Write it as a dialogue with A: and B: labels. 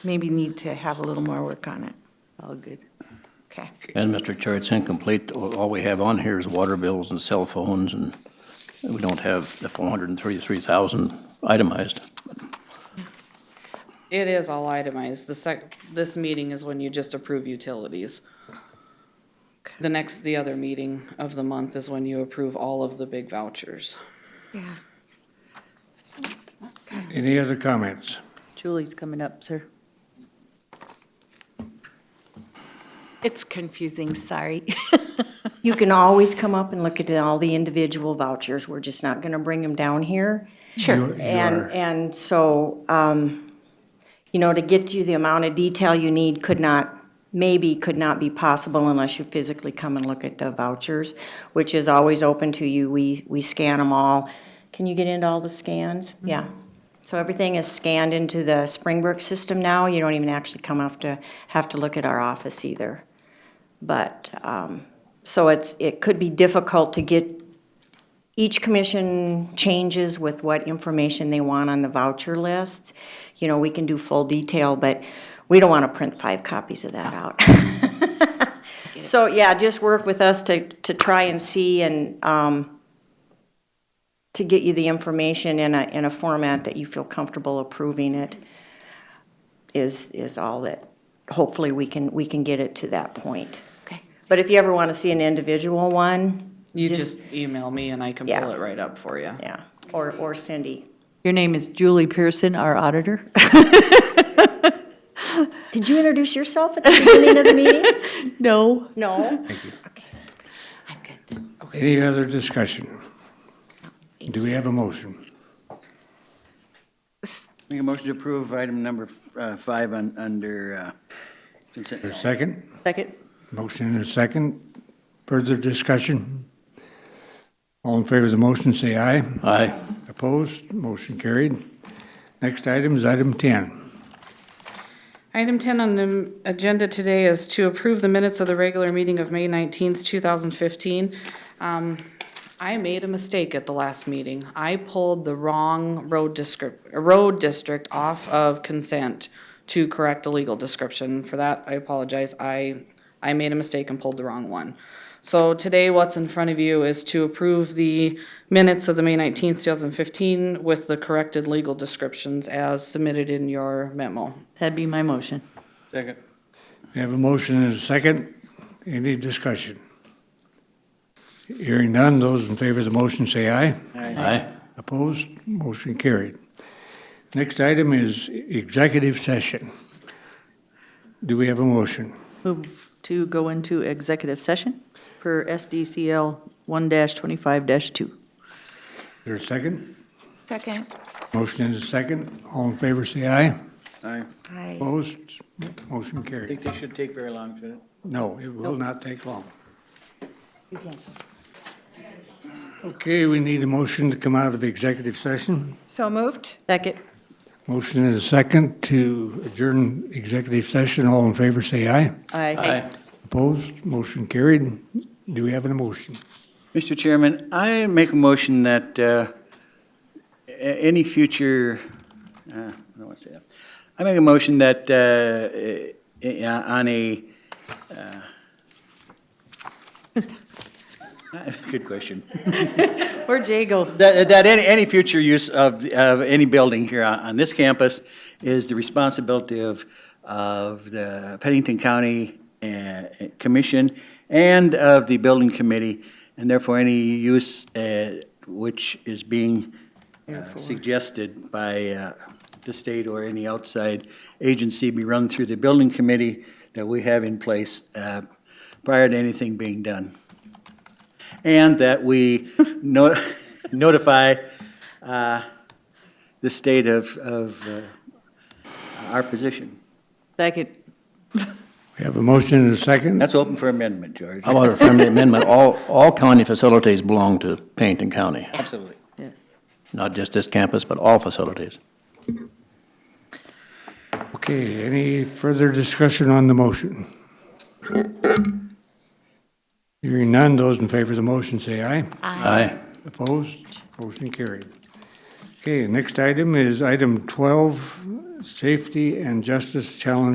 A: maybe need to have a little more work on it.
B: All good.
A: Okay.
C: And Mr. Chair, it's incomplete. All we have on here is water bills and cell phones, and we don't have the 433,000 itemized.
D: It is all itemized. The sec, this meeting is when you just approve utilities. The next, the other meeting of the month is when you approve all of the big vouchers.
A: Yeah.
E: Any other comments?
B: Julie's coming up, sir.
A: It's confusing, sorry.
F: You can always come up and look at all the individual vouchers. We're just not going to bring them down here.
A: Sure.
E: You
F: And,
E: are-
F: and so, um, you know, to get you the amount of detail you need could not, maybe could not be possible unless you physically come and look at the vouchers, which is always open to you. We, we scan them all. Can you get into all the scans?
E: Mm-hmm.
F: Yeah. So everything is scanned into the Springbrook system now. You don't even actually come up to, have to look at our office either. But, um, so it's, it could be difficult to get each commission changes with what information they want on the voucher lists. You know, we can do full detail, but we don't want to print five copies of that out. So, yeah, just work with us to, to try and see and, um, to get you the information in a, in a format that you feel comfortable approving it is, is all that, hopefully, we can, we can get it to that point.
A: Okay.
F: But if you ever want to see an individual one,
D: You
F: Just-
D: just email me and I can
F: Yeah.
D: pull it right up for you.
F: yeah, or, or Cindy.
B: Your name is Julie Pearson, our auditor?
F: Did you introduce yourself at the beginning of the meeting?
B: No.
F: No.
A: I'm good then.
E: Any other discussion? Do we have a motion?
G: Make a motion to approve item number uh, five on, under uh, consent.
E: A second?
B: Second?
E: Motion and a second. Further discussion? All in favor of the motion, say aye.
C: Aye.
E: Opposed? Motion carried. Next item is item 10.
D: Item 10 on the agenda today is to approve the minutes of the regular meeting of May 19th, 2015. Um, I made a mistake at the last meeting. I pulled the wrong road descrip, road district off of consent to correct a legal description. For that, I apologize. I, I made a mistake and pulled the wrong one. So today, what's in front of you is to approve the minutes of the May 19th, 2015 with the corrected legal descriptions as submitted in your memo.
B: That'd be my motion.
G: Second.
E: We have a motion and a second. Any discussion? Hearing none, those in favor of the motion, say aye.
C: Aye.
E: Opposed? Motion carried. Next item is executive session. Do we have a motion?
B: Move to go into executive session per SDCL 1-25-2.
E: Is there a second?
A: Second.
E: Motion is a second. All in favor, say aye.
G: I
A: Aye.
E: Opposed? Motion carried.
G: think they should take very long, shouldn't it?
E: No, it will not take long. Okay, we need a motion to come out of executive session.
A: So moved?
B: Second.
E: Motion is a second to adjourn executive session. All in favor, say aye.
B: Aye.
C: Aye.
E: Opposed? Motion carried. Do we have an motion?
G: Mr. Chairman, I make a motion that uh, a- any future, uh, I don't want to say that. I make a motion that uh, eh, eh, on a, uh, good question.
B: Or Jago.
G: That, that any, any future use of, of any building here on, on this campus is the responsibility of, of the Pennington County uh, Commission and of the Building Committee, and therefore any use uh, which is being uh, suggested by uh, the state or any outside agency be run through the Building Committee that we have in place uh, prior to anything being done. And that we no- notify uh, the state of, of uh, our position.
B: Second.
E: We have a motion and a second.
G: That's open for amendment, George.
C: How about a friendly amendment? All, all county facilities belong to Pennington County,
G: Absolutely.
B: Yes.
C: not just this campus, but all facilities.
E: Okay, any further discussion on the motion? Hearing none, those in favor of the motion say aye.
C: Aye.
E: Opposed? Motion carried. Okay, next item is item 12, Safety and Justice Challenge